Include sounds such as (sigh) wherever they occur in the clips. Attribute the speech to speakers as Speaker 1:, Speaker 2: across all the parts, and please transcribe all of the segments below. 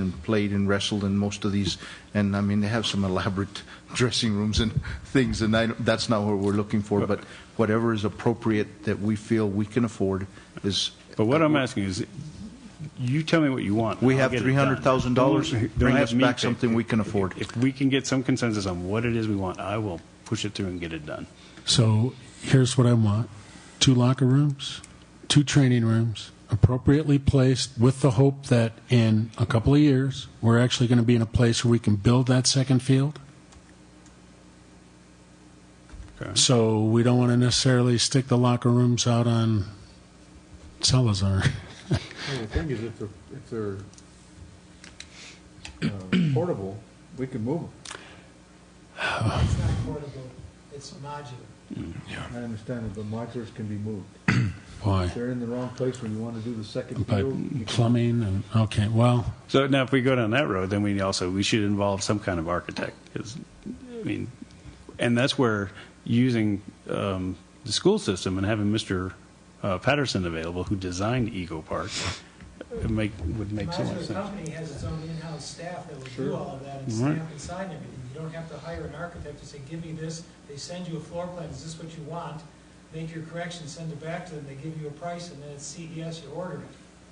Speaker 1: and played and wrestled and most of these, and I mean, they have some elaborate (laughs) dressing rooms and (laughs) things, and I, don't- that's not what we're looking for, but whatever is appropriate that we feel we can afford is,
Speaker 2: But what I'm asking is, you tell me what you want.
Speaker 1: we
Speaker 2: I'll
Speaker 1: have
Speaker 2: get it
Speaker 1: three hundred thousand dollars,
Speaker 2: done. Don't- don't
Speaker 1: bring
Speaker 2: have
Speaker 1: us
Speaker 2: me
Speaker 1: back
Speaker 2: pick.
Speaker 1: something we can afford.
Speaker 2: If we can get some consensus on what it is we want, I will push it through and get it done.
Speaker 3: So here's what I want two locker rooms, two training rooms, appropriately placed with the hope that in a couple of years, we're actually going to be in a place where we can build that second field.
Speaker 2: Okay.
Speaker 3: So we don't want to necessarily stick the locker rooms out on Salazar. (laughs)
Speaker 4: Well, the thing is, if they're, if they're uh, (coughs) portable, we can move them.
Speaker 5: It's not portable, it's modular.
Speaker 4: I understand that the modulars can be moved.
Speaker 3: Boy,
Speaker 4: If they're in the wrong place when you want to do the second
Speaker 3: but
Speaker 4: field, you can-
Speaker 3: plumbing and okay, well,
Speaker 2: So now if we go down that road, then we also, we should involve some kind of architect. 'cause, I mean, and that's where using um, the school system and having Mr. uh, Patterson available, who designed Eagle Park, uh, make, would make so much
Speaker 5: Modular
Speaker 2: sense.
Speaker 5: company has its own in-house staff that will do all of that and
Speaker 2: Right.
Speaker 5: stamp and sign everything. You don't have to hire an architect to say, give me this, they send you a floor plan, is this what you want? Make your corrections, send it back to them, they give you a price, and then at CES, you order it.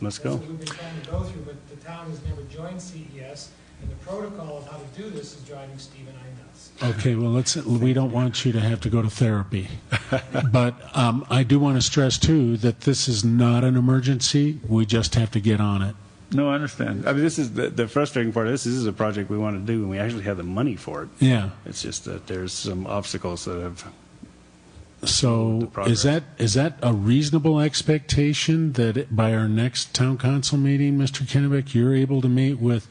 Speaker 2: Let's
Speaker 5: That's
Speaker 2: go.
Speaker 5: what we've been trying to go through, but the town has never joined CES, and the protocol of how to do this is driving Steve and I nuts.
Speaker 3: Okay, well, let's, we don't want you to have to go to therapy. But um, I do want to stress, too, that this is not an emergency. We just have to get on it.
Speaker 2: No, I understand. I mean, this is the, the frustrating part. of This, this is a project we want to do, and we actually have the money for it.
Speaker 3: Yeah.
Speaker 2: It's just that there's some obstacles that have. The
Speaker 3: So
Speaker 2: progress.
Speaker 3: is that, is that a reasonable expectation that it- by our next town council meeting, Mr. Kennebec, you're able to meet with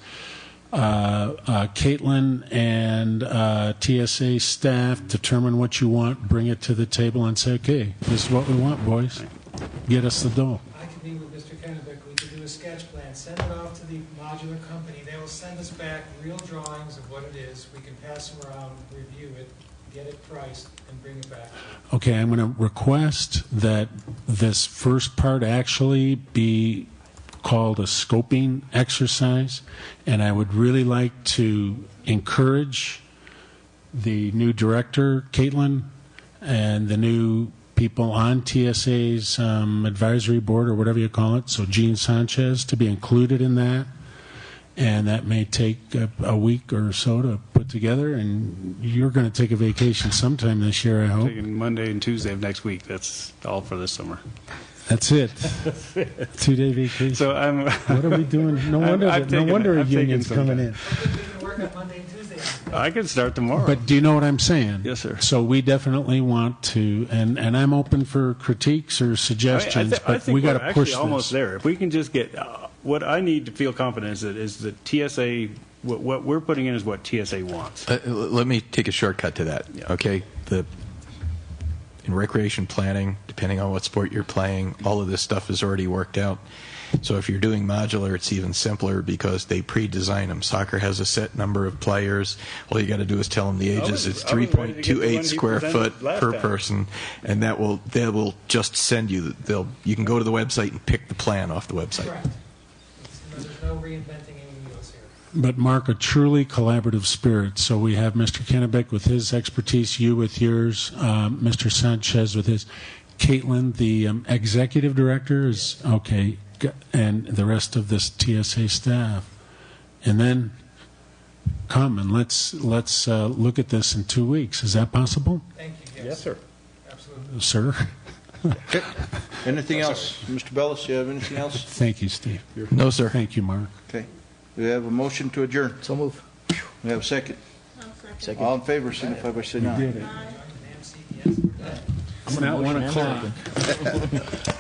Speaker 3: uh, uh, Caitlin and uh, TSA staff, determine what you want, bring it to the table, and say, okay, this is what we want, boys. Get us the dough.
Speaker 5: I could be with Mr. Kennebec, we could do a sketch plan, send it off to the modular company, they will send us back real drawings of what it is, we can pass them around, review it, get it priced, and bring it back.
Speaker 3: Okay, I'm going to request that this first part actually be called a scoping exercise, and I would really like to encourage the new director, Caitlin, and the new people on TSA's um, advisory board, or whatever you call it, so Gene Sanchez, to be included in that. And that may take a, a week or so to put together, and you're going to take a vacation sometime this year, I hope.
Speaker 2: Taking Monday and Tuesday of next week. That's all for this summer. (laughs)
Speaker 3: That's it. Two day vacation.
Speaker 2: So I'm. (laughs)
Speaker 3: what are we doing? No
Speaker 2: I'm-
Speaker 3: wonder.
Speaker 2: I'm
Speaker 3: that-
Speaker 2: taking-
Speaker 3: no wonder a
Speaker 2: I'm taking
Speaker 3: union's
Speaker 2: some
Speaker 3: coming
Speaker 2: time.
Speaker 3: in.
Speaker 5: We can work on Monday and Tuesday.
Speaker 2: I could start tomorrow.
Speaker 3: But do you know what I'm saying?
Speaker 2: Yes, sir.
Speaker 3: So we definitely want to, and and I'm open for critiques or
Speaker 2: I, mean, I,
Speaker 3: suggestions,
Speaker 2: thi- I
Speaker 3: but we
Speaker 2: think
Speaker 3: got
Speaker 2: we're
Speaker 3: to
Speaker 2: actually
Speaker 3: push
Speaker 2: almost
Speaker 3: this.
Speaker 2: there. If we can just get uh, what I need to feel confident is that is that TSA. What, what we're putting in is what TSA wants.
Speaker 6: Uh, l- Let me take a shortcut to that.
Speaker 2: Yeah.
Speaker 6: Okay, the in recreation planning, depending on what sport you're playing, all of this stuff is already worked out. So if you're doing modular, it's even simpler because they pre-design them. Soccer has a set number of players. All you got to do is tell them the
Speaker 2: was-
Speaker 6: ages. It's
Speaker 2: I was ready to get the one
Speaker 6: 3.28
Speaker 2: he
Speaker 6: square
Speaker 2: presented
Speaker 6: foot
Speaker 2: last
Speaker 6: per
Speaker 2: time.
Speaker 6: person, and that will that will just send you. the- They'll you can go to the website and pick the plan off the website.
Speaker 5: Correct. There's no reinventing any wheels here.
Speaker 3: But Mark, a truly collaborative spirit. So we have Mr. Kennebec with his expertise, you with yours, um, Mr. Sanchez with his, Caitlin, the um, executive director is okay, g- and the rest of this TSA staff, and then come and let's let's uh, look at this in two weeks. Is that possible,
Speaker 5: Thank you, yes. Absolutely.
Speaker 3: sir? (laughs)
Speaker 1: Anything else? Mr. Bellis, you have anything else?
Speaker 3: Thank you, Steve.
Speaker 6: No, sir.
Speaker 3: Thank you, Mark.
Speaker 1: (laughs) Okay. We have a motion to adjourn.
Speaker 4: So move.
Speaker 1: We have a second.
Speaker 7: Second.
Speaker 1: All in favor, signify by saying aye.
Speaker 3: It's now one o'clock.